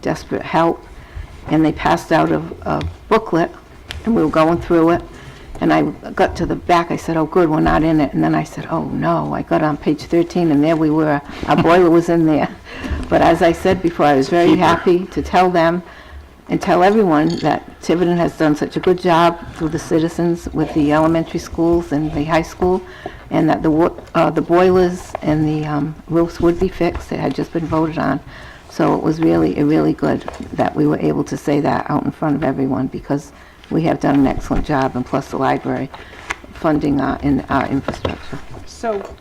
desperate help, and they passed out a a booklet, and we were going through it, and I got to the back, I said, "Oh, good, we're not in it," and then I said, "Oh, no." I got on page 13, and there we were, our boiler was in there. But as I said before, I was very happy to tell them and tell everyone that Tiverton has done such a good job through the citizens with the elementary schools and the high school, and that the wo- uh, the boilers and the um, roofs would be fixed. It had just been voted on. So it was really, it really good that we were able to say that out in front of everyone, because we have done an excellent job, and plus the library funding our, in our infrastructure. So,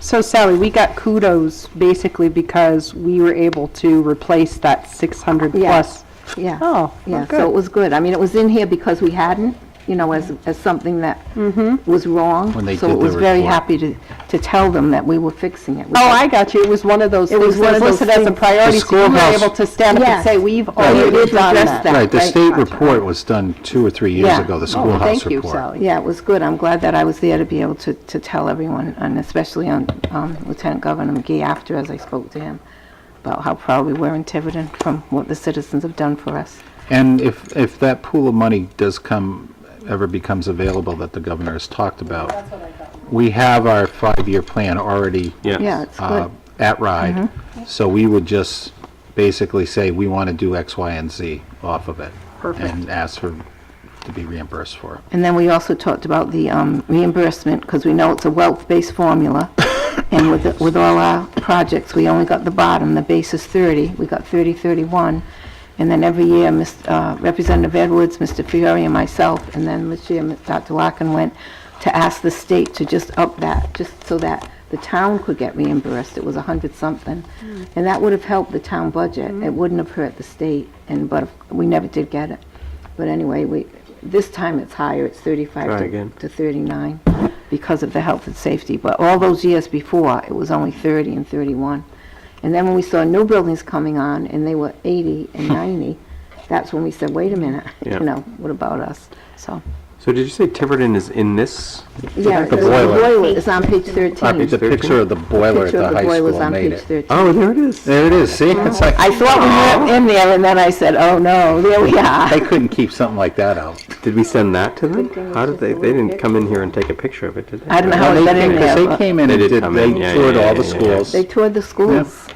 so Sally, we got kudos basically because we were able to replace that 600 Yeah. plus. Yeah. Oh, Yeah, well, so it good. was good. I mean, it was in here because we hadn't, you know, as, as something that Mm-hmm. was wrong. When they So did it the was very report. happy to, to tell them that we were fixing it. We Oh, had- I got you. It was one of those It was things one of that was those listed as a things- priority, so we were schoolhouse- able to stand up and Yes. say, we've we already did done address that. that. Right, the great state project. report was done two or three years Yeah. ago, the Oh, schoolhouse Thank you, report. Sally. Yeah, it was good. I'm glad that I was there to be able to, to tell everyone, and especially on um, Lieutenant Governor McGee after, as I spoke to him, about how proud we were in Tiverton from what the citizens have done for us. And if, if that pool of money does come, ever becomes available that the governor has talked about, we have our five-year plan already Yeah, it's uh, good. Mm-hmm. at RIDE. So we would just basically say, we want to do X, Y, and Z off of it. And ask for, to be reimbursed for it. And then we also talked about the um, reimbursement, because we know it's a wealth-based formula. And with, the- with all our projects, we only got the bottom, the base is 30, we got 30, 31. And then every year, Mis- uh, Representative Edwards, Mr. Fiore, and myself, and then this year, Dr. Larkin went to ask the state to just up that, just so that the town could get reimbursed. It was a 100-something. And that would have helped the town budget. It wouldn't have hurt the state, and, but we never did get it. But anyway, we, this time it's higher, it's 35 Try to again. to 39 because of the health and safety. But all those years before, it was only 30 and 31. And then when we saw new buildings coming on, and they were 80 and 90, that's when we said, wait a minute, you Yeah. know, what about us? So, So did you say Tiverton is in this? yeah, the the boiler. boiler is on page 13. I think the picture of the boiler at Picture the of the high boiler's school on made page Oh. 13. it. Oh, there it is. There it is, see? It's like, I thought we were in there, and then I said, oh, no, there we are. they couldn't keep something like that out. Did we send that to them? How did they, they didn't come in here and take a picture of it, did they? I don't know how Well, it they got in came- 'cause there, They but came in and They did, did come they in, yeah, toured yeah, all yeah, the yeah, schools. they toured the schools.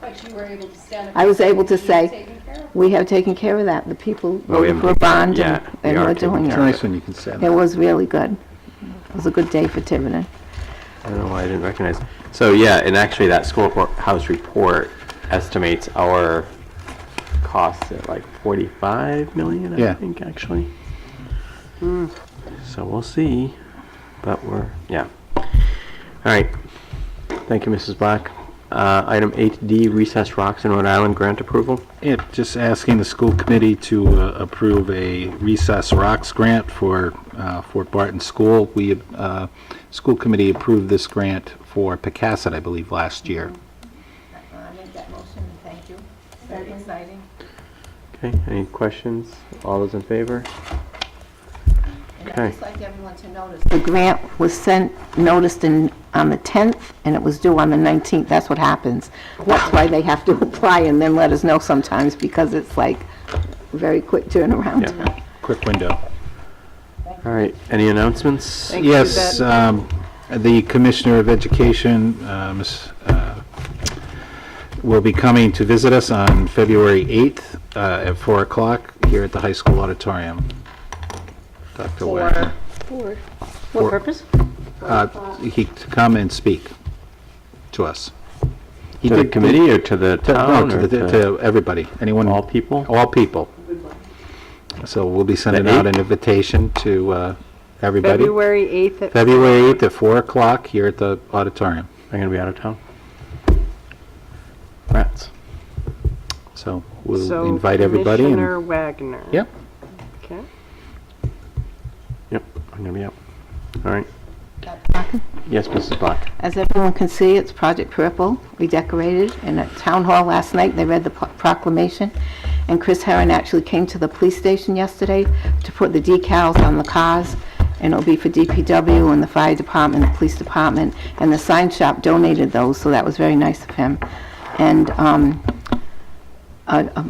But you were able to stand up. I was able to and say- taken care of. We have taken care of that. The people Well, voted we haven't for a taken care- bond, yeah, and we and are we're taking doing care it. It's nice when you can say It that. was really good. It was a good day for Tiverton. I don't know why I didn't recognize. it. So yeah, and actually that schoolhouse report estimates our costs at like 45 million, I Yeah. think, actually. So we'll see, but we're, yeah. All right. Thank you, Mrs. Black. Uh, Item 8D, recessed rocks in Rhode Island grant approval. Yeah, just asking the school committee to uh, approve a recess rocks grant for uh, Fort Barton School. We, uh, school committee approved this grant for Picasset, I believe, last year. I make that motion, and thank you. Very exciting. Okay, any questions? All those in favor? And Okay. I'd just like everyone to notice. The grant was sent, noticed in, on the 10th, and it was due on the 19th. That's what happens. That's why they have to apply and then let us know sometimes, because it's like very quick turnaround. Yeah. Quick window. All right, any announcements? Yes, um, the Commissioner of Education, uh, Ms., uh, will be coming to visit us on February 8th uh, at 4 o'clock here at the high school auditorium. Dr. Wagner. What purpose? Uh, He, to come and speak to us. He To the did- committee or to the to- no, town? to or the- To everybody, anyone. All people? All people. So we'll be sending out an invitation to uh, everybody. February 8th at February 8th at 4 o'clock here at the auditorium. I'm gonna be out of town. Rats. So we'll invite everybody. So and- Commissioner Wagner. Yep. Okay. Yep, I'm gonna be out. All right. Yes, Mrs. Black. As everyone can see, it's Project Purple. We decorated, and at Town Hall last night, they read the pro- proclamation. And Chris Herron actually came to the police station yesterday to put the decals on the cars, and it'll be for DPW and the fire department, the police department, and the sign shop donated those, so that was very nice of him. And um, a a